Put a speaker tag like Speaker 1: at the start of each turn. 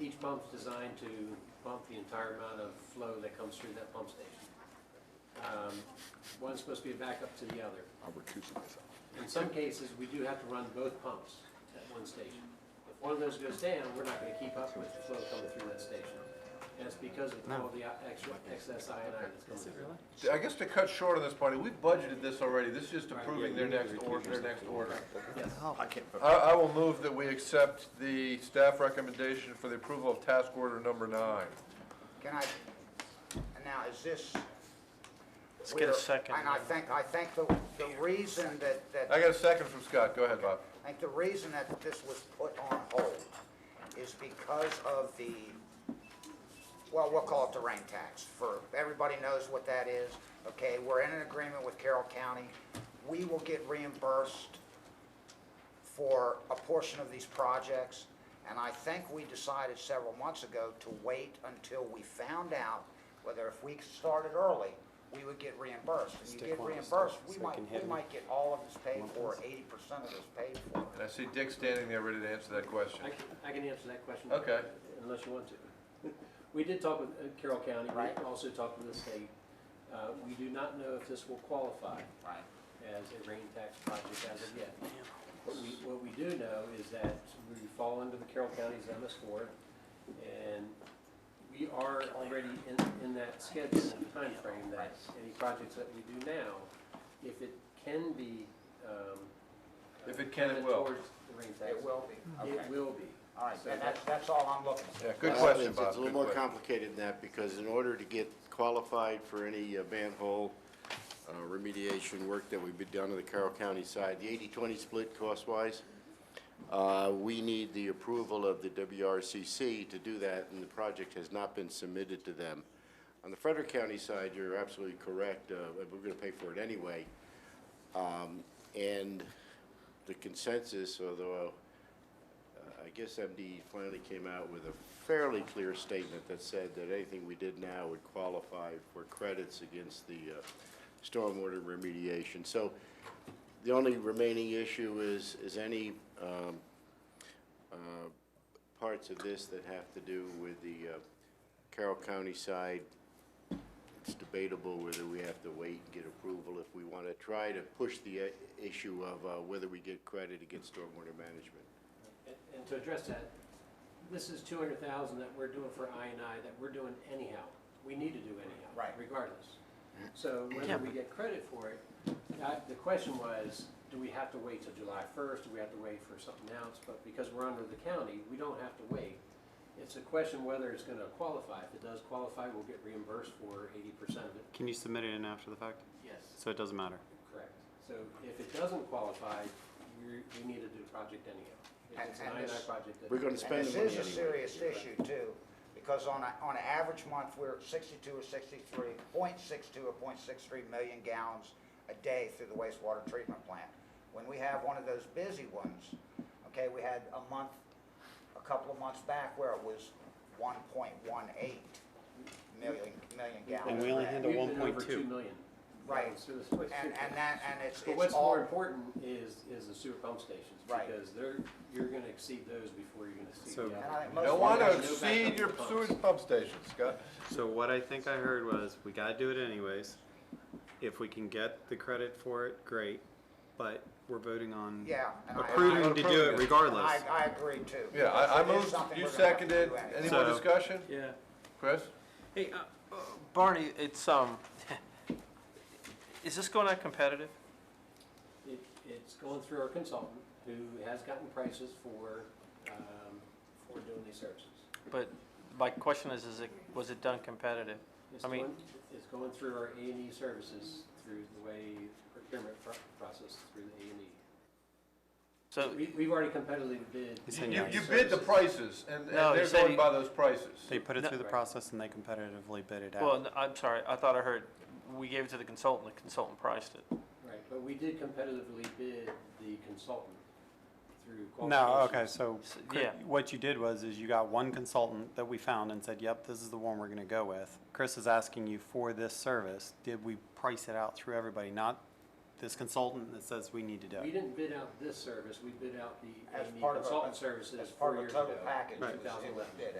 Speaker 1: each pump's designed to pump the entire amount of flow that comes through that pump station. Um, One's supposed to be a backup to the other.
Speaker 2: I'll recuse myself.
Speaker 1: In some cases, we do have to run both pumps at one station. If one of those goes down, we're not going to keep up with the flow coming through that station. And it's because of all the uh, extra excess iodine that's coming through.
Speaker 3: I guess to cut short on this, Barney, we budgeted this already. This is just approving their next order, their next order.
Speaker 2: Oh, I can't vote.
Speaker 3: I, I will move that we accept the staff recommendation for the approval of task order number nine.
Speaker 4: Can I, and now, is this?
Speaker 5: Let's get a second.
Speaker 4: And I think, I think the, the reason that,
Speaker 3: I
Speaker 4: that,
Speaker 3: got a second from Scott. Go ahead, Bob.
Speaker 4: I think the reason that this was put on hold is because of the, well, we'll call it the rain tax, for, everybody knows what that is, okay? We're in an agreement with Carroll County. We will get reimbursed for a portion of these projects, and I think we decided several months ago to wait until we found out whether if we started early, we would get reimbursed. If you
Speaker 5: Stick
Speaker 4: get
Speaker 5: one,
Speaker 4: reimbursed,
Speaker 5: stick,
Speaker 4: we
Speaker 5: so I
Speaker 4: might,
Speaker 5: can
Speaker 4: we
Speaker 5: hit me.
Speaker 4: might get all of this paid for, eighty percent of this paid for.
Speaker 3: And I see Dick standing there ready to answer that
Speaker 1: I
Speaker 3: question.
Speaker 1: can, I can answer that question.
Speaker 3: Okay.
Speaker 1: Unless you want to. We did talk with uh, Carroll County,
Speaker 4: Right.
Speaker 1: we also talked with the state. Uh, We do not know if this will qualify
Speaker 4: Right.
Speaker 1: as a rain tax project as of yet. What we, what we do know is that we fall under the Carroll County's MS4, and we are already in, in that schedule and timeframe that any projects that we do now, if it can be, um.
Speaker 3: If it can, it
Speaker 1: counted
Speaker 3: will.
Speaker 1: Towards the rain tax.
Speaker 4: It will be,
Speaker 1: It
Speaker 4: okay.
Speaker 1: will be.
Speaker 4: All right,
Speaker 1: So
Speaker 4: and that's, that's all I'm looking for.
Speaker 3: Yeah, good
Speaker 6: Well,
Speaker 3: question,
Speaker 6: it's-
Speaker 3: Bob.
Speaker 6: It's a little
Speaker 3: Good
Speaker 6: more
Speaker 3: question.
Speaker 6: complicated than that, because in order to get qualified for any uh, manhole uh, remediation work that we've been done on the Carroll County side, the 80-20 split cost-wise, uh, we need the approval of the WRCC to do that, and the project has not been submitted to them. On the Frederick County side, you're absolutely correct, uh, we're going to pay for it anyway. Um, And the consensus, although I guess MD finally came out with a fairly clear statement that said that anything we did now would qualify for credits against the uh, stormwater remediation. So the only remaining issue is, is any um, uh, parts of this that have to do with the uh, Carroll County side. It's debatable whether we have to wait and get approval if we want to try to push the uh, issue of uh, whether we get credit against stormwater management.
Speaker 1: And- And to address that, this is 200,000 that we're doing for INI that we're doing anyhow. We need to do anyhow.
Speaker 4: Right.
Speaker 1: Regardless. So whether we get credit for it, I- the question was, do we have to wait till July 1st? Do we have to wait for something else? But because we're under the county, we don't have to wait. It's a question whether it's going to qualify. If it does qualify, we'll get reimbursed for 80% of it.
Speaker 5: Can you submit it in after the fact?
Speaker 1: Yes.
Speaker 5: So it doesn't matter.
Speaker 1: Correct. So if it doesn't qualify, we we need to do the project anyhow. If It's an
Speaker 4: And- and this-
Speaker 1: INI project. that-
Speaker 6: We're going to
Speaker 4: And
Speaker 6: spend
Speaker 4: this
Speaker 6: the money
Speaker 4: is
Speaker 6: anyway.
Speaker 4: a serious issue too, because on a, on an average month, we're at sixty-two or sixty-three, point six-two or point six-three million gallons a day through the wastewater treatment plant. When we have one of those busy ones, okay, we had a month, a couple of months back where it was one point one eight million, million gallons.
Speaker 5: And we only
Speaker 4: a day.
Speaker 5: handle
Speaker 1: We've been over
Speaker 5: 1.2.
Speaker 1: 2 million.
Speaker 4: Right.
Speaker 1: Yeah, so it's-
Speaker 4: And, and that, and it's,
Speaker 1: But
Speaker 4: it's
Speaker 1: what's more
Speaker 4: all,
Speaker 1: important is, is the sewer pump stations.
Speaker 4: Right.
Speaker 1: Because they're, you're going to exceed those before you're going to exceed
Speaker 5: So-
Speaker 1: the
Speaker 4: and I
Speaker 1: other.
Speaker 4: think most.
Speaker 3: Don't want to
Speaker 1: There's no
Speaker 3: exceed
Speaker 1: backup
Speaker 3: your
Speaker 1: pumps.
Speaker 3: sewage pump station, Scott.
Speaker 5: So what I think I heard was, we gotta do it anyways. If we can get the credit for it, great, but we're voting on
Speaker 4: Yeah, and I-
Speaker 5: approving to do
Speaker 3: Approving
Speaker 5: it
Speaker 3: it.
Speaker 4: I,
Speaker 5: regardless.
Speaker 4: I agree too.
Speaker 3: Yeah, I, I
Speaker 4: It is
Speaker 3: moved,
Speaker 4: something
Speaker 3: you
Speaker 4: we're gonna have to
Speaker 3: seconded.
Speaker 4: do anyway.
Speaker 3: Any more
Speaker 5: So-
Speaker 3: discussion?
Speaker 7: Yeah.
Speaker 3: Chris?
Speaker 7: Hey, uh, uh, Barney, it's, um, is this going on competitive?
Speaker 1: It- It's going through our consultant, who has gotten prices for, um, for doing these services.
Speaker 7: But my question is, is it, was it done competitive?
Speaker 1: It's
Speaker 7: I mean-
Speaker 1: going- It's going through our A and E services, through the way procurement pro- process, through the A and E.
Speaker 7: So,
Speaker 1: We, we've already competitively bid.
Speaker 5: He's
Speaker 3: You,
Speaker 5: saying
Speaker 3: you
Speaker 5: yes.
Speaker 3: you bid the prices, and, and
Speaker 7: No, he
Speaker 3: they're
Speaker 7: said
Speaker 3: going
Speaker 7: he-
Speaker 3: by those prices.
Speaker 5: They put it
Speaker 7: No.
Speaker 5: through the process and they competitively bid it
Speaker 7: well,
Speaker 5: out.
Speaker 7: no, I'm sorry, I thought I heard, we gave it to the consultant, the consultant priced it.
Speaker 1: Right, but we did competitively bid the consultant through
Speaker 5: No,
Speaker 1: qualifications.
Speaker 5: okay, so
Speaker 7: S-
Speaker 5: cr-
Speaker 7: yeah.
Speaker 5: what you did was, is you got one consultant that we found and said, yep, this is the one we're gonna go with. Chris is asking you for this service, did we price it out through everybody, not this consultant that says we need to do
Speaker 1: We
Speaker 5: it?
Speaker 1: didn't bid out this service, we bid out the
Speaker 4: As
Speaker 1: A&E
Speaker 4: part of a-
Speaker 1: consultant services
Speaker 4: As
Speaker 1: four
Speaker 4: part of a
Speaker 1: years
Speaker 4: total
Speaker 1: ago.
Speaker 4: package, it was- it was
Speaker 1: 2011.
Speaker 4: bid